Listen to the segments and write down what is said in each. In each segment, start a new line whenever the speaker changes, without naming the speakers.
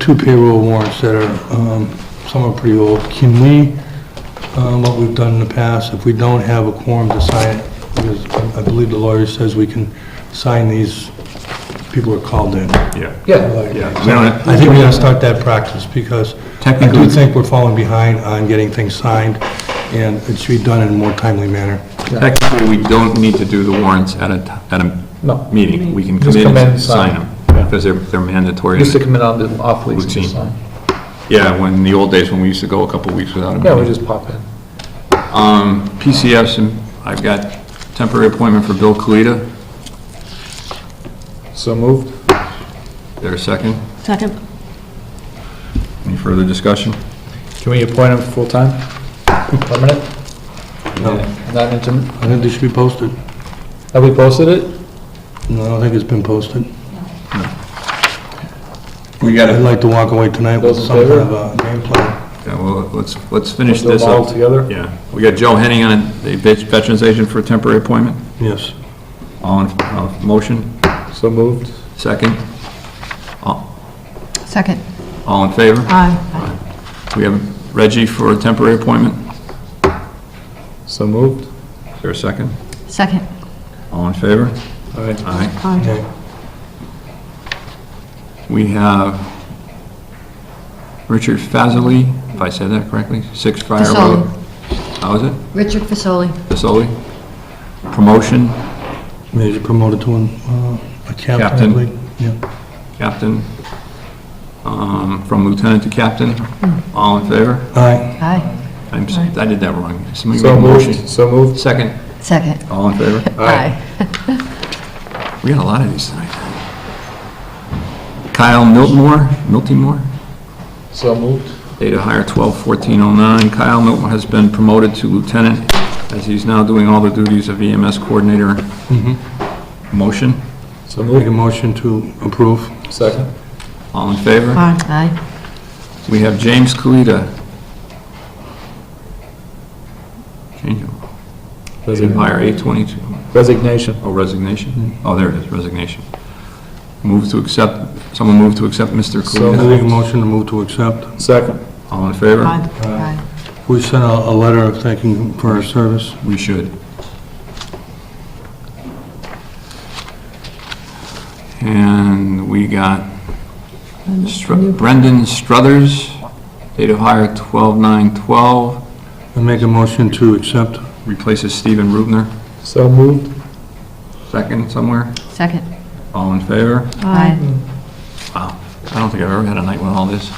two payroll warrants that are, um, some are pretty old. Can we, um, what we've done in the past, if we don't have a quorum to sign it, because I believe the lawyer says we can sign these, people are called in.
Yeah,
Yeah,
yeah. We don't,
I think we gotta start that practice, because I do
Technically-
think we're falling behind on getting things signed, and it should be done in a more timely manner.
technically, we don't need to do the warrants at a, t- at
No.
a meeting. We can come
Just
in
come in
and
and sign.
sign them, because they're, they're mandatory.
used to come in on the off weeks and just
Routine.
sign.
Yeah, when, the old days when we used to go a couple weeks without a
Yeah, we
meeting.
just pop in.
PCFs, and I've got temporary appointment for Bill Colita.
So moved?
There a second?
Second.
Any further discussion?
Can we appoint him full-time? Permanent?
No.
Not intermittent?
I think they should be posted.
Have we posted it?
No, I don't think it's been posted.
We
I'd
gotta,
like to walk away tonight with
Those in
some kind
favor?
of a game plan.
yeah, well, let's, let's finish
Do them
this
all
up.
together?
Yeah, we got Joe Henning on, the Veterans Agent for a temporary appointment.
Yes.
All in, uh, motion,
So moved?
second.
Second.
All in favor?
Aye.
We have Reggie for a temporary appointment.
So moved?
Is there a second?
Second.
All in favor?
All right.
Aye.
Aye.
Okay.
We have Richard Fazoli, if I said that correctly, 6 Friar Road.
Fasoli.
How is it?
Richard Fasoli.
Fasoli? Promotion,
Major promoted to an, uh, a captain,
Captain.
I believe. Yeah.
captain, um, from lieutenant to captain. All in favor?
Aye.
Aye.
I'm, s- I did that wrong. Somebody make
So
a motion.
moved, so moved?
Second.
Second.
All in favor?
Aye.
We got a lot of these tonight. Kyle Miltmore, Miltymore?
So moved?
Date of hire 12/14/09. Kyle Milton has been promoted to lieutenant as he's now doing all the duties of EMS coordinator. Motion,
So
Make a
moved?
motion to approve.
Second?
all in favor?
Aye. Aye.
We have James Kalita. Change of, date of hire 8/22.
Resignation.
Oh, resignation? Oh, there it is, resignation. Move to accept, someone move to accept Mr.
So
I
Kalita.
make a motion to move to accept.
Second?
All in favor?
Aye. Aye.
We sent a, a letter of thanking him for his service.
We should. And we got Str- Brendan Struthers, date of hire 12/9/12,
I make a motion to accept.
replaces Stephen Rubner,
So moved?
second somewhere.
Second.
All in favor?
Aye.
Wow, I don't think I've ever had a night with all this.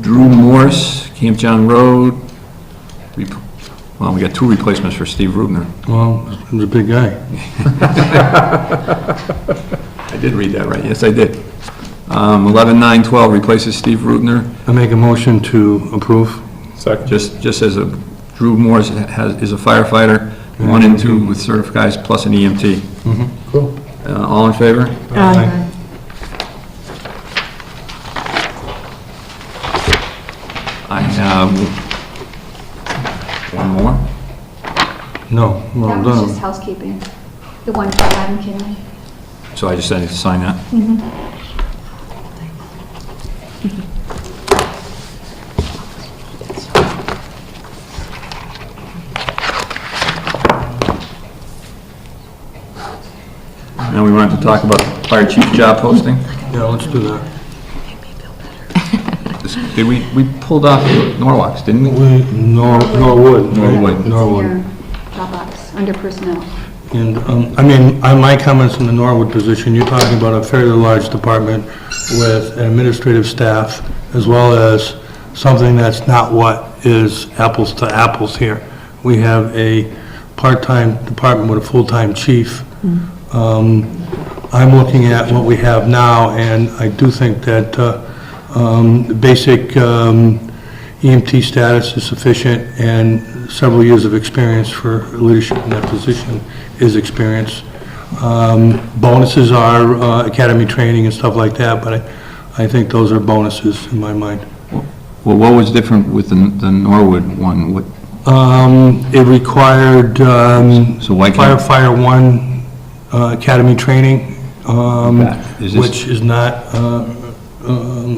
Drew Morse, Camp John Road, rep- well, we got two replacements for Steve Rubner.
Well, he's a big guy.
I did read that right, yes, I did. Um, 11/9/12 replaces Steve Rubner.
I make a motion to approve.
Second?
Just, just as a, Drew Morris has, is a firefighter, one and two with certificates plus an EMT.
Cool.
Uh, all in favor?
Aye.
I have one more.
No, we're all
That was just
done.
housekeeping, the one for Adam Kinley.
So I just had to sign that. Now we wanted to talk about fire chief job posting.
Yeah, let's do that.
This- Did we, we pulled off Norwalks, didn't we?
We, Nor- Norwood. right?
Norwood.
Norwood.
Dropbox, under personnel.
And, um, I mean, I- my comments on the Norwood position, you're talking about a fairly large department with an administrative staff, as well as something that's not what is apples to apples here. We have a part-time department with a full-time chief. Um, I'm looking at what we have now, and I do think that uh, um, the basic um, EMT status is sufficient, and several years of experience for leadership in that position is experience. Um, Bonuses are uh, academy training and stuff like that, but I I think those are bonuses in my mind.
Well, what was different with the the Norwood one? What,
Um, It required um,
So why can't-
firefighter one uh, academy training, um,
Is this-
which is not uh, um,